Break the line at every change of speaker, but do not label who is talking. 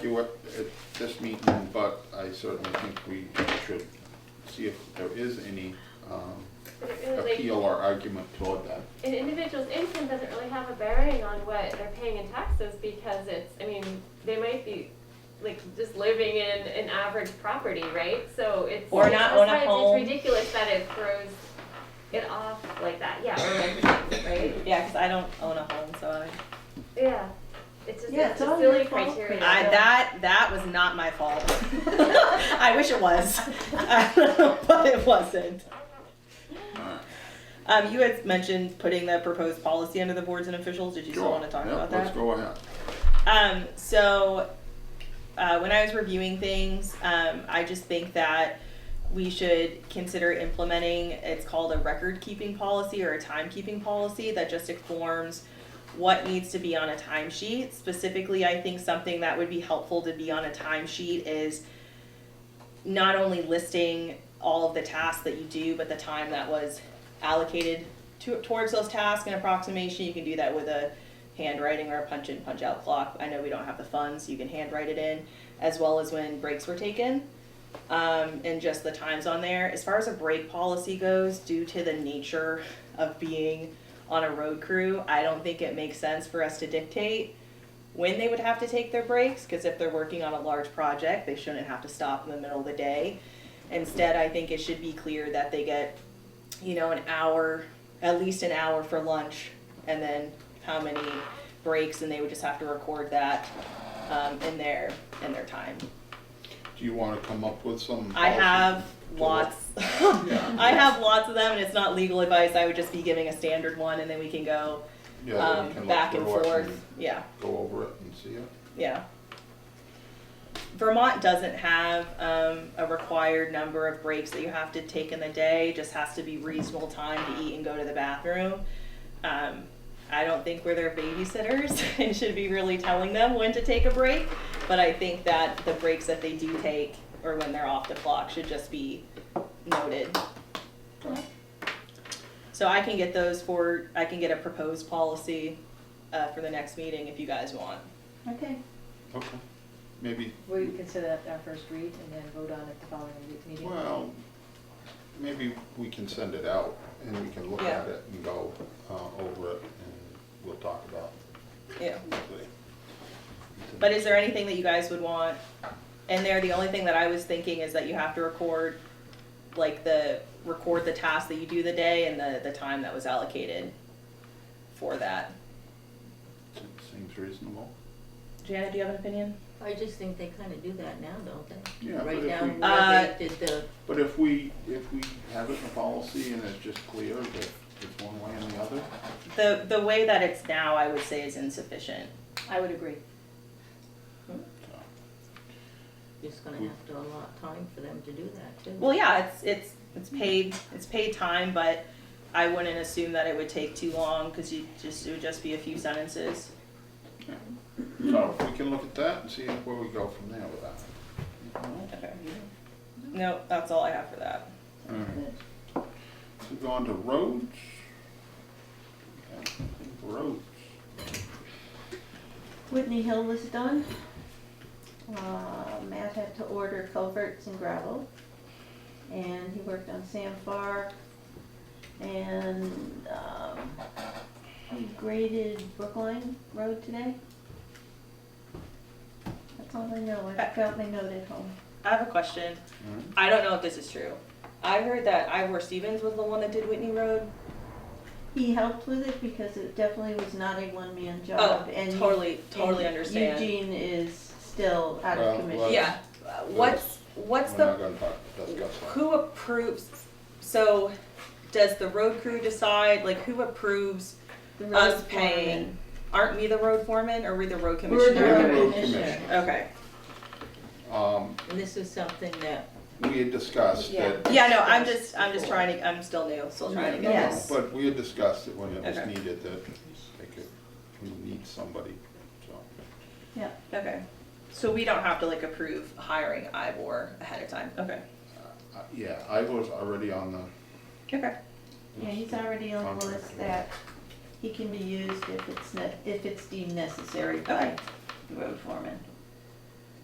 you at, at this meeting, but I certainly think we should see if there is any, um,
Really,
appeal or argument toward that.
an individual's income doesn't really have a bearing on what they're paying in taxes because it's, I mean, they might be like just living in an average property, right? So it's.
Or not
that's
own a
why it's-
home.
It's ridiculous that it throws it off like that, yeah, or like, right?
Yeah, because I don't own a home, so I,
Yeah, it's just,
Yeah, it's
it's a
all
silly
your fault,
criteria.
Chris.
I that that was not my fault. I wish it was, but it wasn't. Um, you had mentioned putting the proposed policy under the boards and officials. Did you still want to talk
Sure, yeah,
about that?
Let's go ahead.
Um, so uh, when I was reviewing things, um, I just think that we should consider implementing it's called a record keeping policy or a timekeeping policy that just informs what needs to be on a timesheet. Specifically, I think something that would be helpful to be on a timesheet is not only listing all of the tasks that you do, but the time that was allocated to, towards those tasks and approximation. You can do that with a handwriting or a punch in, punch out clock. I know we don't have the funds, you can handwrite it in, as well as when breaks were taken. Um, and just the times on there. As far as a break policy goes, due to the nature of being on a road crew, I don't think it makes sense for us to dictate when they would have to take their breaks, because if they're working on a large project, they shouldn't have to stop in the middle of the day. Instead, I think it should be clear that they get, you know, an hour, at least an hour for lunch, and then how many breaks, and they would just have to record that um, in their in their time.
Do you wanna come up with some?
I have
policy?
lots.
Yeah.
I have lots of them, and it's not legal advice. I would just be giving a standard one, and then we can go
Yeah, then we
um,
can look
back and
through it
forth. Yeah.
Go over it and see it.
Yeah. Vermont doesn't have um, a required number of breaks that you have to take in the day. Just has to be reasonable time to eat and go to the bathroom. Um, I don't think we're their babysitters and should be really telling them when to take a break. But I think that the breaks that they do take or when they're off the clock should just be noted. So I can get those for, I can get a proposed policy uh, for the next meeting if you guys want.
Okay,
Okay, maybe,
we consider that our first read and then vote on it the following re- meeting.
well, maybe we can send it out and we can look
Yeah.
at it and go, uh, over it and we'll talk about
Yeah.
it. later.
But is there anything that you guys would want? And there, the only thing that I was thinking is that you have to record, like the, record the task that you do the day and the, the time that was allocated for that.
Seems reasonable.
Janet, do you have an opinion?
I just think they kinda do that now, don't they?
Yeah, but
Write
if
down
we-
Uh,
where they did the,
But if we, if we have it in the policy and it's just clear that it's one way and the other,
The, the way that it's now, I would say is insufficient.
I would agree.
so,
it's gonna
We-
have to allot time for them to do that too.
Well, yeah, it's, it's, it's paid, it's paid time, but I wouldn't assume that it would take too long, cause you just, it would just be a few sentences.
so we can look at that and see where we go from there with that. All
Okay. No, that's all I have for that.
right. So go on to roads. Okay, I think Roads.
Whitney Hill was done. Uh, Matt had to order culverts and gravel. And he worked on Sam Farr. And, um, he graded Brookline Road today. That's all I know. I got my note at home.
I have a question.
All right.
I don't know if this is true. I heard that Ivor Stevens was the one that did Whitney Road.
He helped with it because it definitely was not a one-man job.
oh,
and
totally, totally
and
understand.
Eugene is still out
Well,
of commission.
Yeah. Uh, What's what's
We're
the
not gonna talk, discuss that.
who approves? So, does the road crew decide? Like, who approves?
The
us
road
paying Aren't we the road foreman or we the road
foreman. We're
commissioner?
the road commissioner.
Okay.
Um,
And this is something that,
we had discussed that.
Yeah. No. I'm just. I'm just trying to. I'm still new. Still trying to get
Yeah.
this.
But we had discussed it when it was
Okay.
needed, that they could, we need somebody, so.
Okay. So we don't have to like approve hiring Ivor ahead of time. Okay.
Uh, Yeah, I was already on the.
Okay.
Yeah, he's already on the list that he can be used if it's, ne- if it's deemed necessary by
Okay.
the road foreman.